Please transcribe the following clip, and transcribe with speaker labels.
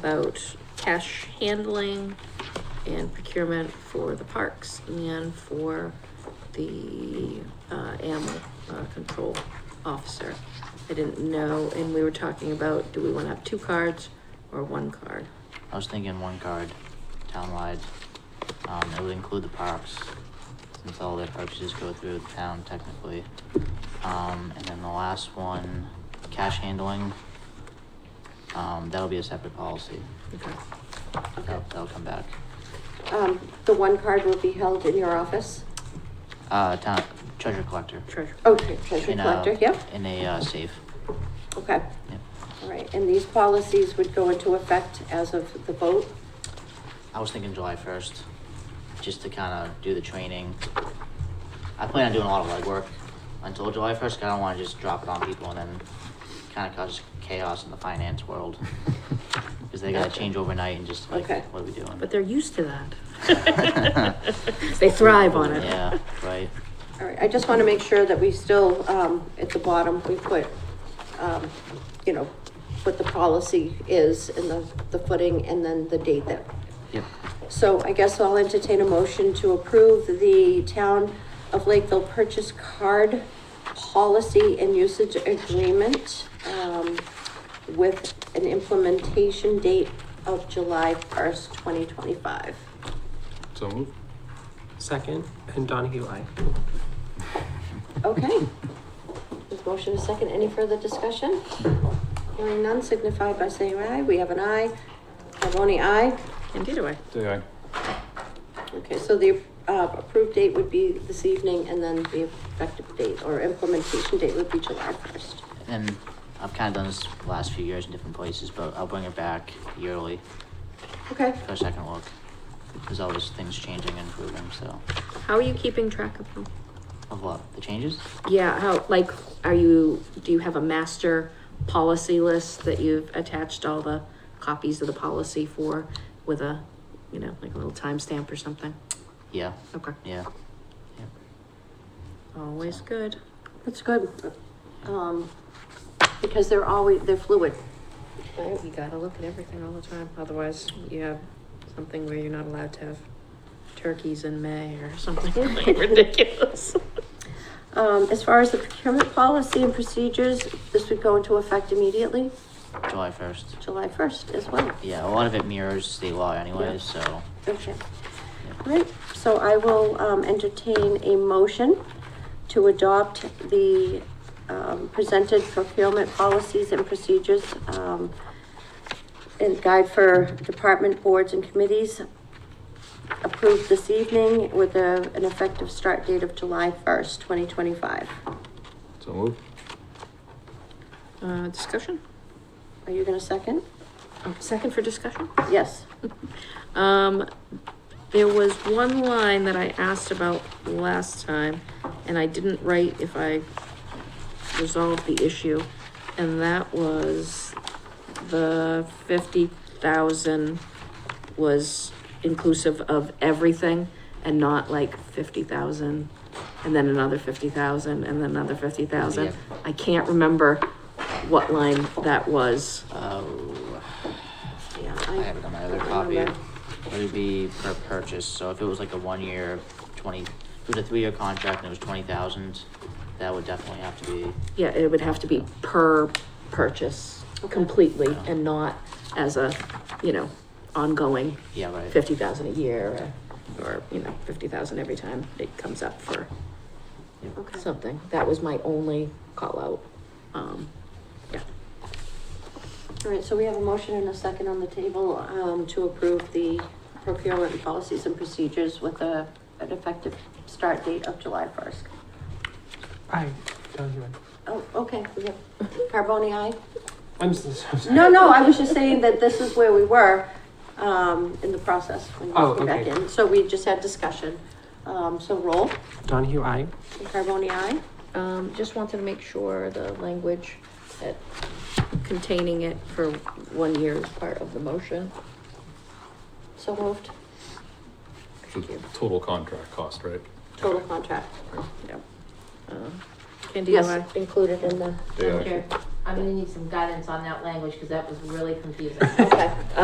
Speaker 1: about cash handling and procurement for the parks and for the, uh, animal, uh, control officer. I didn't know, and we were talking about, do we wanna have two cards or one card?
Speaker 2: I was thinking one card, townwide. Um, it would include the parks, since all their purchases go through the town technically. Um, and then the last one, cash handling. Um, that'll be a separate policy.
Speaker 1: Okay.
Speaker 2: That'll, that'll come back.
Speaker 3: Um, the one card will be held in your office?
Speaker 2: Uh, town, treasure collector.
Speaker 1: Treasure.
Speaker 3: Oh, tre- treasure
Speaker 2: In a-
Speaker 3: collector, yep,
Speaker 2: In a, uh, safe.
Speaker 3: okay.
Speaker 2: Yep.
Speaker 3: All right, and these policies would go into effect as of the vote?
Speaker 2: I was thinking July first, just to kind of do the training. I plan on doing a lot of legwork until July first. I don't want to just drop it on people and then kind of cause chaos in the finance world because they got to
Speaker 3: Gotcha.
Speaker 2: change overnight and just like,
Speaker 3: Okay.
Speaker 2: what are we doing?
Speaker 1: But they're used to that. They thrive on it.
Speaker 2: Yeah, right.
Speaker 3: All right, I just want to make sure that we still, um, at the bottom, we put, um, you know, what the policy is and the, the footing and then the date that.
Speaker 2: Yep.
Speaker 3: So I guess I'll entertain a motion to approve the town of Lakeville purchase card policy and usage agreement, um, with an implementation date of July first, twenty twenty-five.
Speaker 4: So move.
Speaker 5: Second, and Donahue, aye.
Speaker 3: Okay. There's motion a second. Any further discussion? Hearing none, signify by saying aye. We have an aye. Carboni, aye.
Speaker 1: Indeed, do I?
Speaker 4: Day aye.
Speaker 3: Okay, so the uh, approved date would be this evening, and then the effective date or implementation date would be July first.
Speaker 2: And I've kind of done this the last few years in different places, but I'll bring it back yearly
Speaker 3: Okay.
Speaker 2: for a second look. There's always things changing and improving, so.
Speaker 1: How are you keeping track of them?
Speaker 2: Of what? The changes?
Speaker 1: Yeah, how, like, are you, do you have a master policy list that you've attached all the copies of the policy for with a, you know, like a little timestamp or something?
Speaker 2: Yeah.
Speaker 1: Okay.
Speaker 2: Yeah. Yep.
Speaker 1: Always good.
Speaker 3: That's good. Um, Because they're always, they're fluid.
Speaker 1: You gotta look at everything all the time, otherwise you have something where you're not allowed to have turkeys in May or something really ridiculous.
Speaker 3: Um, As far as the procurement policy and procedures, this would go into effect immediately,
Speaker 2: July first.
Speaker 3: July first as well.
Speaker 2: Yeah, a lot of it mirrors state law anyway,
Speaker 3: Yeah.
Speaker 2: so.
Speaker 3: Okay.
Speaker 2: yeah.
Speaker 3: All right, so I will um, entertain a motion to adopt the um, presented procurement policies and procedures um, and guide for department boards and committees approved this evening with a, an effective start date of July first, twenty twenty-five.
Speaker 4: So move.
Speaker 1: Uh, discussion?
Speaker 3: Are you gonna second?
Speaker 1: Oh, Second for discussion?
Speaker 3: Yes.
Speaker 1: Um, there was one line that I asked about last time, and I didn't write if I resolved the issue, and that was the fifty thousand was inclusive of everything and not like fifty thousand and then another fifty thousand and then another fifty thousand.
Speaker 2: Yeah.
Speaker 1: I can't remember what line that was.
Speaker 2: Oh,
Speaker 3: Yeah,
Speaker 2: I have it on my other
Speaker 3: I
Speaker 2: copy. It
Speaker 3: remember.
Speaker 2: would be per purchase, so if it was like a one-year, twenty, if it was a three-year contract and it was twenty thousand, that would definitely have to be,
Speaker 1: Yeah, it would have to be per purchase completely and not as a, you know, ongoing
Speaker 2: yeah, right?
Speaker 1: fifty thousand a year or, or, you know, fifty thousand every time it comes up for
Speaker 3: Okay.
Speaker 1: something. That was my only call out. Um, yeah,
Speaker 3: All right, so we have a motion and a second on the table um, to approve the procurement policies and procedures with a, an effective start date of July first.
Speaker 5: Aye, Donahue, aye.
Speaker 3: Oh, okay, we have Carboni, aye?
Speaker 5: I'm s- I'm sorry.
Speaker 3: No, no, I was just saying that this is where we were um, in the process when you
Speaker 5: Oh,
Speaker 3: came back
Speaker 5: okay.
Speaker 3: in. So we just had discussion. Um, So roll,
Speaker 5: Donahue, aye.
Speaker 3: Carboni, aye?
Speaker 1: um, just wanted to make sure the language that containing it for one year is part of the motion.
Speaker 3: So moved,
Speaker 4: The
Speaker 1: Thank you.
Speaker 4: Total contract cost, right?
Speaker 3: total contract.
Speaker 1: Yeah. Um, Candy, you
Speaker 3: Yes, included in the.
Speaker 4: Day aye.
Speaker 6: Madam Chair, I'm gonna need some guidance on that language, because that was really confusing.
Speaker 3: Okay.